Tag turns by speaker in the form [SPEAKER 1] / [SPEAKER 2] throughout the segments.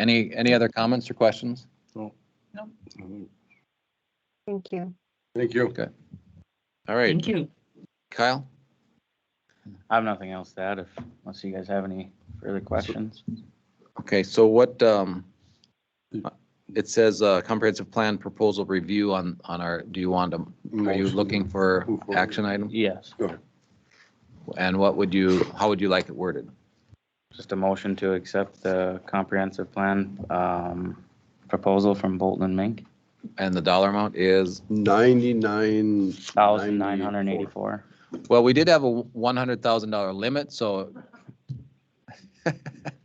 [SPEAKER 1] Any, any other comments or questions?
[SPEAKER 2] Thank you.
[SPEAKER 3] Thank you.
[SPEAKER 1] Okay. All right,
[SPEAKER 4] Thank you.
[SPEAKER 1] Kyle?
[SPEAKER 5] I have nothing else to add if, unless you guys have any further questions.
[SPEAKER 1] Okay, so what, um, it says, uh, comprehensive plan proposal review on, on our, do you want to, are you
[SPEAKER 3] Motion.
[SPEAKER 1] looking for
[SPEAKER 3] Move forward.
[SPEAKER 1] action item?
[SPEAKER 5] Yes,
[SPEAKER 1] And what would you, how would you like it worded?
[SPEAKER 5] just a motion to accept the comprehensive plan um, proposal from Bolton and Mink,
[SPEAKER 1] And the dollar amount is,
[SPEAKER 3] Ninety-nine.
[SPEAKER 5] thousand nine hundred and eighty-four.
[SPEAKER 1] well, we did have a one hundred thousand dollar limit, so that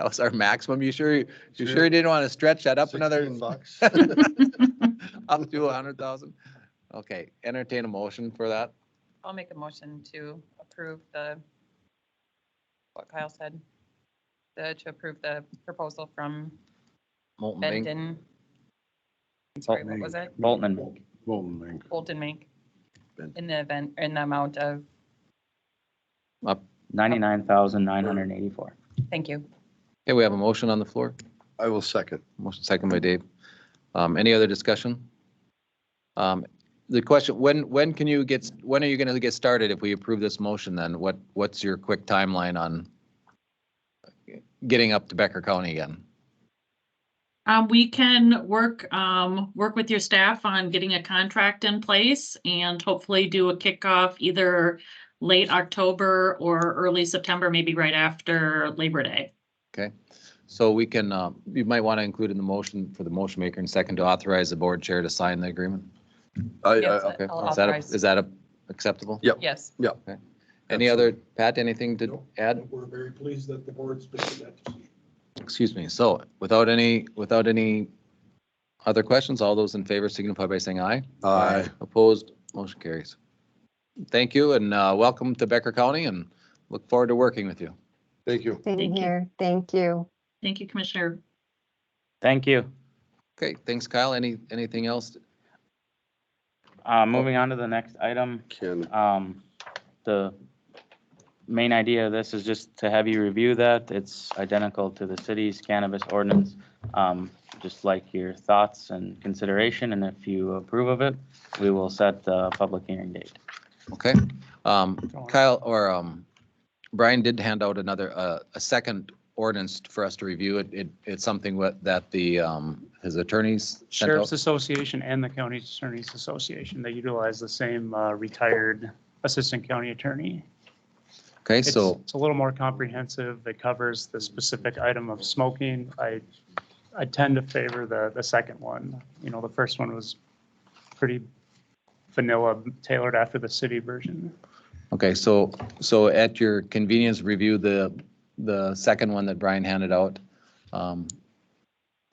[SPEAKER 1] was our maximum. You sure, you sure you didn't want to stretch that up another?
[SPEAKER 3] bucks.
[SPEAKER 1] Up to a hundred thousand? Okay, entertain a motion for that.
[SPEAKER 6] I'll make a motion to approve the, what Kyle said, the, to approve the proposal from
[SPEAKER 1] Molten Mink.
[SPEAKER 6] Benton. I'm Sorry, what was it?
[SPEAKER 5] Bolton and Mink,
[SPEAKER 3] Bolton Mink.
[SPEAKER 6] Bolton Mink
[SPEAKER 3] Benton.
[SPEAKER 6] in the event, in the amount of,
[SPEAKER 5] ninety-nine thousand nine hundred and eighty-four.
[SPEAKER 6] thank you.
[SPEAKER 1] Okay, we have a motion on the floor.
[SPEAKER 3] I will second.
[SPEAKER 1] Motion second by Dave. Um, any other discussion? Um, the question, when, when can you get, when are you gonna get started if we approve this motion then? What, what's your quick timeline on getting up to Becker County again?
[SPEAKER 4] Um, we can work, um, work with your staff on getting a contract in place and hopefully do a kickoff either late October or early September, maybe right after Labor Day.
[SPEAKER 1] So we can, uh, you might want to include in the motion for the motion maker and second to authorize the board chair to sign the agreement.
[SPEAKER 3] I,
[SPEAKER 6] Yes,
[SPEAKER 3] I,
[SPEAKER 1] Okay,
[SPEAKER 6] Uh, I'll
[SPEAKER 1] is that a-
[SPEAKER 6] authorize.
[SPEAKER 1] is that a- acceptable?
[SPEAKER 3] Yeah.
[SPEAKER 6] Yes,
[SPEAKER 1] Any other, Pat, anything to
[SPEAKER 7] Nope.
[SPEAKER 1] add?
[SPEAKER 7] We're very pleased that the board's making that decision.
[SPEAKER 1] Excuse me. So without any, without any other questions, all those in favor signify by saying aye.
[SPEAKER 3] I,
[SPEAKER 1] Opposed, motion carries. Thank you and uh, welcome to Becker County and look forward to working with you.
[SPEAKER 3] thank you.
[SPEAKER 2] Same
[SPEAKER 4] Thank you.
[SPEAKER 2] here. Thank you.
[SPEAKER 4] Thank you, Commissioner.
[SPEAKER 5] Thank you.
[SPEAKER 1] Okay, thanks Kyle. Any, anything else?
[SPEAKER 5] Uh, moving on to the next item,
[SPEAKER 3] Ken,
[SPEAKER 5] um, the main idea of this is just to have you review that. It's identical to the city's cannabis ordinance. Um, just like your thoughts and consideration, and if you approve of it, we will set the public hearing date.
[SPEAKER 1] Okay. Um, Kyle or um, Brian did hand out another, uh, a second ordinance for us to review. It, it, it's something what- that the, um, his attorneys sent out.
[SPEAKER 8] Sheriff's Association and the County Attorney's Association, they utilize the same uh, retired assistant county attorney.
[SPEAKER 1] Okay,
[SPEAKER 8] It's,
[SPEAKER 1] so.
[SPEAKER 8] it's a little more comprehensive. It covers the specific item of smoking. I, I tend to favor the, the second one. You know, the first one was pretty vanilla, tailored after the city version.
[SPEAKER 1] Okay, so, so at your convenience, review the, the second one that Brian handed out. Um,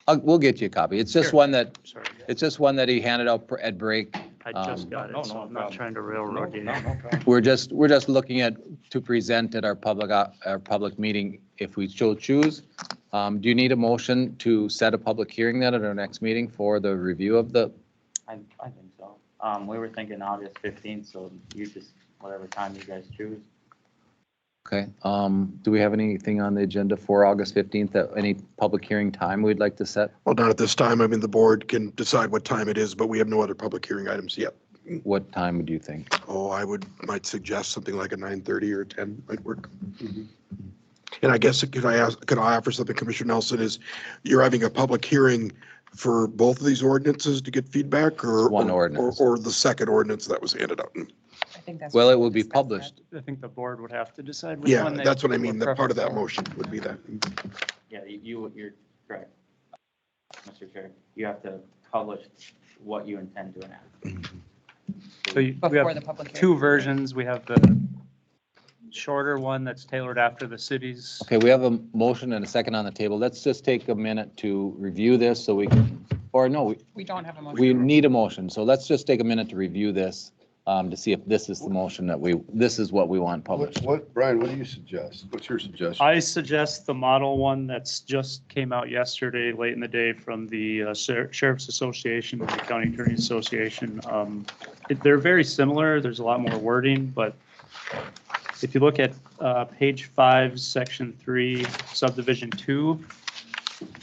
[SPEAKER 1] I'll, we'll get you a copy. It's just
[SPEAKER 8] Sure.
[SPEAKER 1] one that,
[SPEAKER 8] Sorry,
[SPEAKER 1] it's just one that he handed out pr- at break.
[SPEAKER 8] I
[SPEAKER 1] Um,
[SPEAKER 8] just got
[SPEAKER 5] no,
[SPEAKER 8] it, so
[SPEAKER 5] no
[SPEAKER 8] I'm not
[SPEAKER 5] problem.
[SPEAKER 8] trying to railroad you.
[SPEAKER 1] We're just, we're just looking at, to present at our public, op- our public meeting if we so choose. Um, do you need a motion to set a public hearing then at our next meeting for the review of the,
[SPEAKER 5] I, I think so. Um, we were thinking August fifteenth, so you just, whatever time you guys choose.
[SPEAKER 1] okay? Um, do we have anything on the agenda for August 15th, that any public hearing time we'd like to set?
[SPEAKER 9] Well, not at this time. I mean, the board can decide what time it is, but we have no other public hearing items yet.
[SPEAKER 1] What time would you think?
[SPEAKER 9] Oh, I would, might suggest something like a 9:30 or 10 might work. And I guess, could I ask, could I offer something, Commissioner Nelson, is you're having a public hearing for both of these ordinances to get feedback or?
[SPEAKER 1] One
[SPEAKER 9] or-
[SPEAKER 1] ordinance.
[SPEAKER 9] Or or the second ordinance that was handed out?
[SPEAKER 6] I think that's.
[SPEAKER 1] Well,
[SPEAKER 6] what
[SPEAKER 1] it
[SPEAKER 6] we
[SPEAKER 1] will be
[SPEAKER 6] discussed that.
[SPEAKER 1] published.
[SPEAKER 8] I think the board would have to decide which
[SPEAKER 9] Yeah,
[SPEAKER 8] one they.
[SPEAKER 9] that's what I mean.
[SPEAKER 8] would
[SPEAKER 9] The part of that
[SPEAKER 8] prefer.
[SPEAKER 9] motion would be that.
[SPEAKER 5] Yeah, you- you, you're correct. Mr. Chair, you have to publish what you intend to enact.
[SPEAKER 8] So you- we have
[SPEAKER 6] Before the public hearing.
[SPEAKER 8] two versions. We have the shorter one that's tailored after the cities.
[SPEAKER 1] Okay, we have a motion and a second on the table. Let's just take a minute to review this so we can, or no, we-
[SPEAKER 6] We don't have a motion.
[SPEAKER 1] we need a motion. So let's just take a minute to review this um, to see if this is the motion that we, this is what we want
[SPEAKER 3] what,
[SPEAKER 1] published.
[SPEAKER 3] what, Brian, what do you suggest? What's your suggestion?
[SPEAKER 8] I suggest the model one that's just came out yesterday, late in the day, from the uh, Sher- Sheriff's Association and the County Attorney's Association. Um, it- They're very similar. There's a lot more wording, but if you look at uh, page five, section three, subdivision two,